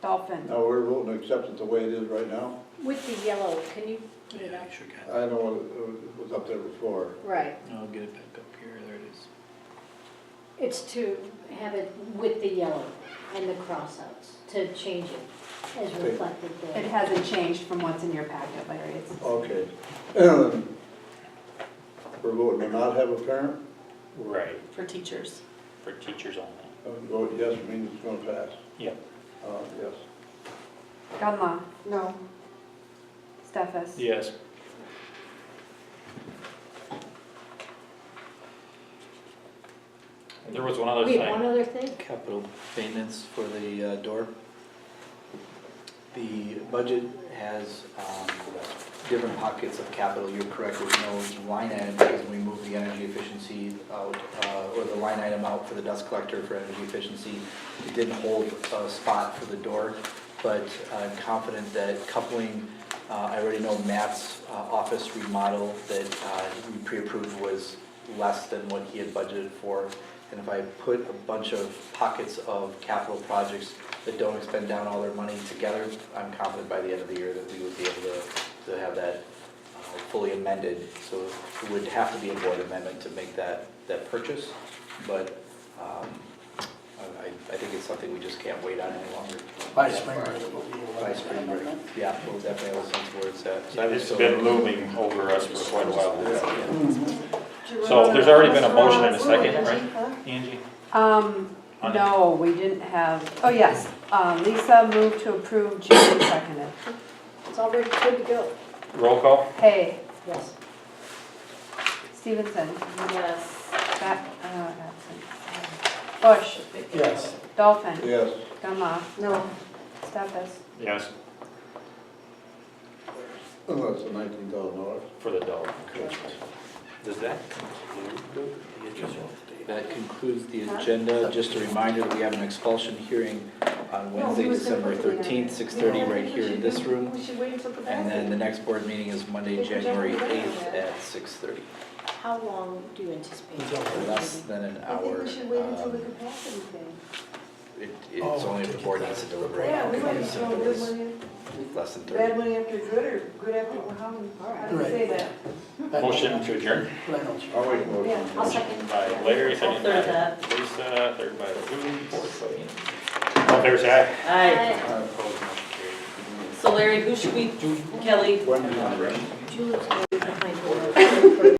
Dolphin, No, we're voting to accept it the way it is right now. With the yellow, can you, Yeah, you know, you sure can. I know it was up there before. right, I'll get it back up here, there it is. it's to have it with the yellow and the crossouts, to change it as Okay. reflected it there. hasn't changed from what's in your packet, Larry, it's, Okay. We're voting to not have a parent, Right, for teachers. for teachers only. Uh, vote yes means it's gonna pass. Yep. Uh, yes. Gunlaw, No. Stefas. Yes. There was one other We have one thing, other thing? Capital maintenance for the uh, door. The budget has um, different pockets of capital, you're correct, there's no line item, because we moved the energy efficiency out, uh, or the line item out for the dust collector for energy efficiency. It didn't hold a spot for the door, but I'm confident that coupling, uh, I already know Matt's uh, office remodel that uh, we pre-approved was less than what he had budgeted for. And if I put a bunch of pockets of capital projects that don't expend down all their money together, I'm confident by the end of the year that we would be able to, to have that uh, fully amended. So it would have to be a board amendment to make that, that purchase, but um, I, I think it's something we just can't wait on any longer. By spring break, it will be a By spring break, yeah, we'll definitely have a sense where it's at. So I would it's still- been looming over us for quite a while. Yeah. So there's already been a motion and a second, right? Angie? Um, On- no, we didn't have, oh, yes, uh, Lisa moved to approve, Julie seconded. It's already good to go. Roll call? Hey, Yes. Stevenson, Yes. Bat, uh, absent. Bush, Yes. Dolphin, Yes. Gunlaw, No. Stefas. Yes. Oh, that's the nineteen thousand dollars. For the dog. Does that? That concludes the agenda. Just a reminder that we have an expulsion hearing on Wednesday, December 13th, 6:30, right here in this room. We should wait until the And then the next board meeting is Monday, January 8th at 6:30. How long do you anticipate? It's over. Less than an I think hour. we should wait until the um, capacity thing. it- It's Oh. only if the board needs to deliberate. Yeah, we If might it's throw good Less money, in- than bad 30. money after good, or good after, well, how, how do you say that? Motion to adjourn Reynolds. Oh. I'll make a motion. Yeah, I'll second. by Larry, second by I'll third Lisa, third by Lou, fourth by Angie. All fair side? Aye. Uh, Uh, So Larry, who should we, Kelly, When do you want to- Julie's already behind her.